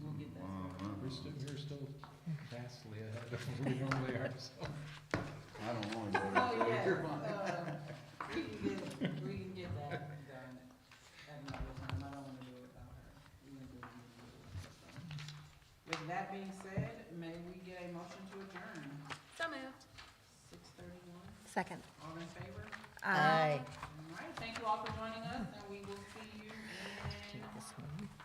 We'll get that. We're still, we're still vastly ahead of where we normally are, so. I don't want to go Oh, there. yeah, uh, we can get, we can get that done at another time, I don't wanna do it without her. We can do it with her, so. With that being said, may we get a motion to adjourn, So moved. six thirty-one, Second. all in favor? Aye. All right, thank you all for joining us, and we will see you in Keep this one.